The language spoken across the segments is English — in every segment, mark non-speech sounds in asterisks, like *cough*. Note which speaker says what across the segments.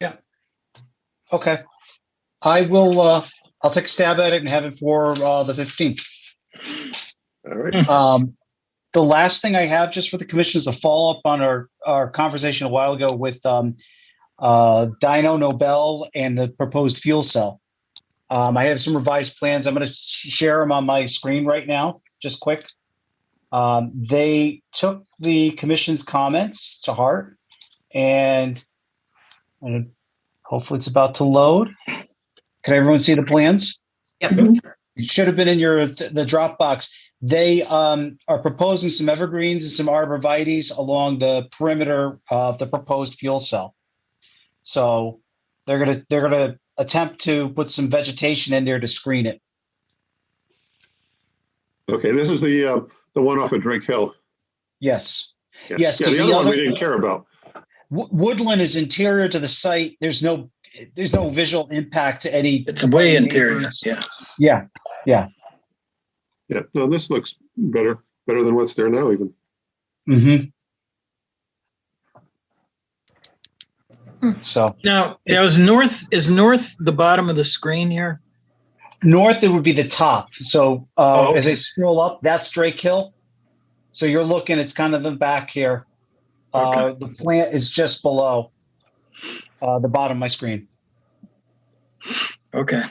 Speaker 1: Yeah. Okay. I will, uh, I'll take a stab at it and have it for, uh, the fifteenth.
Speaker 2: All
Speaker 1: *laughs*
Speaker 2: right,
Speaker 1: Um, the last thing I have just for the commission is a follow-up on our, our conversation a while ago with, um, uh, Dino Nobel and the proposed fuel cell. Um, I have some revised plans. I'm going to share them on my screen right now, just quick. Um, they took the commission's comments to heart and and hopefully it's about to load. Can everyone see the plans?
Speaker 3: Mm-hmm.
Speaker 4: Yep.
Speaker 1: It should have been in your, the Dropbox. They um, are proposing some evergreens and some arborvitae's along the perimeter of the proposed fuel cell. So they're gonna, they're gonna attempt to put some vegetation in there to screen it.
Speaker 2: okay, this is the, uh, the one off of Drake Hill.
Speaker 1: Yes.
Speaker 2: Yeah.
Speaker 1: Yes,
Speaker 2: Yeah,
Speaker 1: 'cause
Speaker 2: the
Speaker 1: the
Speaker 2: other one we
Speaker 1: other-
Speaker 2: didn't care about.
Speaker 1: Wo- Woodland is interior to the site. There's no, there's no visual impact to any.
Speaker 5: It's way interior, yeah.
Speaker 1: Yeah,
Speaker 2: Yeah, no, this looks better, better than what's there now even.
Speaker 1: mhm.
Speaker 4: Hmm.
Speaker 1: So
Speaker 5: Now, now is north, is north the bottom of the screen here?
Speaker 1: north, it would be the top. So uh,
Speaker 5: Oh,
Speaker 1: as I scroll up, that's Drake Hill. So you're looking, it's kind of the back here. Uh, The plant is just below uh, the bottom of my screen.
Speaker 5: *laughs* Okay.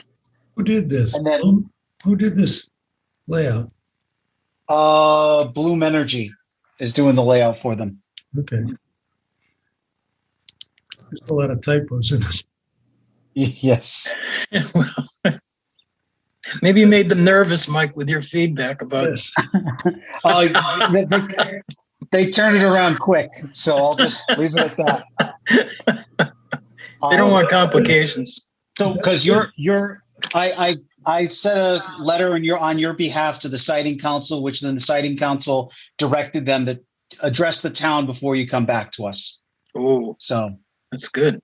Speaker 6: Who did this?
Speaker 1: And then-
Speaker 6: Who- Who did this layout?
Speaker 1: Uh, Bloom Energy is doing the layout for them. *laughs*
Speaker 6: Okay. There's a lot of typos in this.
Speaker 1: Yes.
Speaker 5: Well, *laughs* Maybe you made them nervous, Mike, with your feedback about,
Speaker 6: Yes.
Speaker 1: Uh,
Speaker 5: *laughs*
Speaker 1: they, they, they turned it around quick, so I'll just leave it at that.
Speaker 5: *laughs* they don't
Speaker 1: Um,
Speaker 5: want complications.
Speaker 1: So, because you're, you're, I, I, I sent a letter in your, on your behalf to the siding council, which then the siding council directed them to address the town before you come back to us.
Speaker 5: Oh,
Speaker 1: So,
Speaker 5: that's good.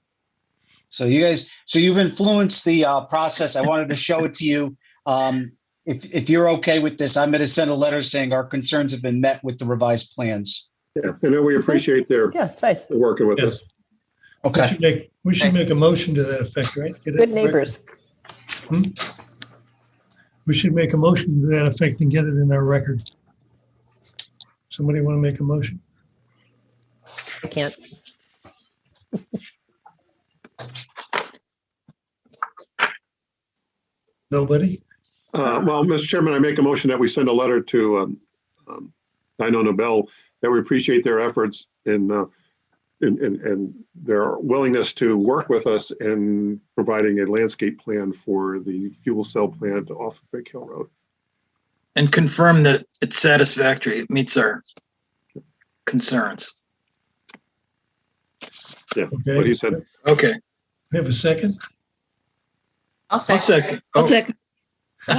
Speaker 1: so you guys, so you've influenced the, uh, process. I wanted to show it to you. Um, if, if you're okay with this, I'm going to send a letter saying our concerns have been met with the revised plans.
Speaker 2: Yeah, I know we appreciate their
Speaker 3: Yeah, it's nice.
Speaker 2: working with us.
Speaker 6: We
Speaker 1: Okay.
Speaker 6: should make, we should
Speaker 4: Thanks.
Speaker 6: make a motion to that effect, right? Get it
Speaker 3: Good
Speaker 6: correct.
Speaker 3: neighbors.
Speaker 6: We should make a motion to that effect and get it in our record. Somebody want to make a motion?
Speaker 3: I can't.
Speaker 6: Nobody?
Speaker 2: Uh, well, Mr. Chairman, I make a motion that we send a letter to, um, um, Dino Nobel, that we appreciate their efforts in, uh, in, in, and their willingness to work with us in providing a landscape plan for the fuel cell plant off Drake Hill Road.
Speaker 5: And confirm that it's satisfactory. It meets our concerns.
Speaker 2: What he
Speaker 6: Okay.
Speaker 2: said,
Speaker 5: Okay.
Speaker 6: We have a second?
Speaker 4: I'll
Speaker 5: I'll
Speaker 4: second.
Speaker 5: second. Oh,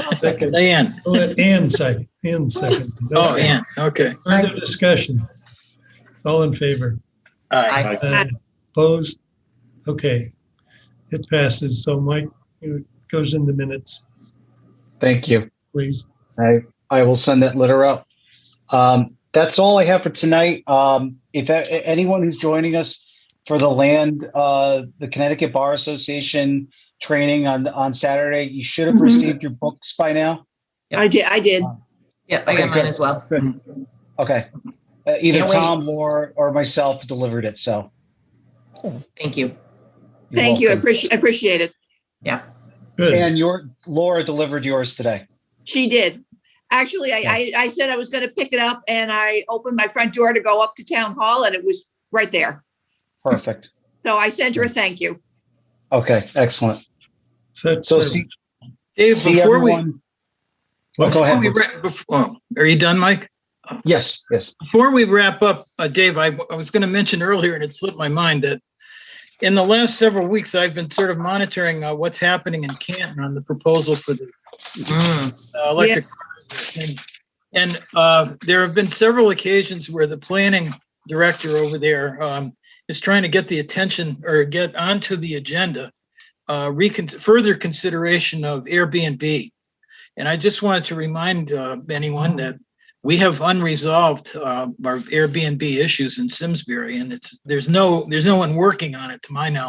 Speaker 4: I'll second.
Speaker 5: Ann.
Speaker 6: Oh, And second, and second.
Speaker 5: Oh, Ann. Okay.
Speaker 6: Further discussion. All in favor?
Speaker 5: Aye.
Speaker 4: Aye.
Speaker 6: Uh, Opposed? Okay. It passes. So Mike, it goes in the minutes,
Speaker 1: Thank you.
Speaker 6: please.
Speaker 1: I, I will send that letter out. Um, that's all I have for tonight. Um, if a- a- anyone who's joining us for the land, uh, the Connecticut Bar Association training on, on Saturday, you should have
Speaker 7: Mhm.
Speaker 1: received your books by now.
Speaker 7: I did, I did.
Speaker 4: Yep, I got
Speaker 1: Okay, good.
Speaker 4: mine as well.
Speaker 1: Okay. Uh, either
Speaker 4: Can't wait.
Speaker 1: Tom or, or myself delivered it, so.
Speaker 4: Thank you.
Speaker 1: you're
Speaker 7: Thank you, I
Speaker 1: welcome.
Speaker 7: appreciate, appreciate it.
Speaker 6: Good.
Speaker 1: And your, Laura delivered yours today.
Speaker 7: She did. Actually, I, I, I said I was gonna pick it up and I opened my front door to go up to town hall and it was right there.
Speaker 1: Perfect.
Speaker 7: So I sent her a thank you.
Speaker 1: Okay, excellent.
Speaker 6: So,
Speaker 1: So see,
Speaker 5: Dave,
Speaker 1: see
Speaker 5: before we,
Speaker 1: everyone. Oh, Go
Speaker 5: before
Speaker 1: ahead.
Speaker 5: we, wrap- before, are you done, Mike?
Speaker 1: Yes, yes.
Speaker 5: Before we wrap up, uh, Dave, I, I was going to mention earlier, and it slipped my mind, that in the last several weeks, I've been sort of monitoring uh, what's happening in Canton on the proposal for the
Speaker 4: Mm,
Speaker 5: uh, electric. cars And and, uh, there have been several occasions where the planning director over there um, is trying to get the attention or get onto the agenda, uh, recon- further consideration of Airbnb. And I just wanted to remind uh, anyone that we have unresolved um, uh, our Airbnb issues in Simsbury, and it's there's no there's no one working on it to my knowledge.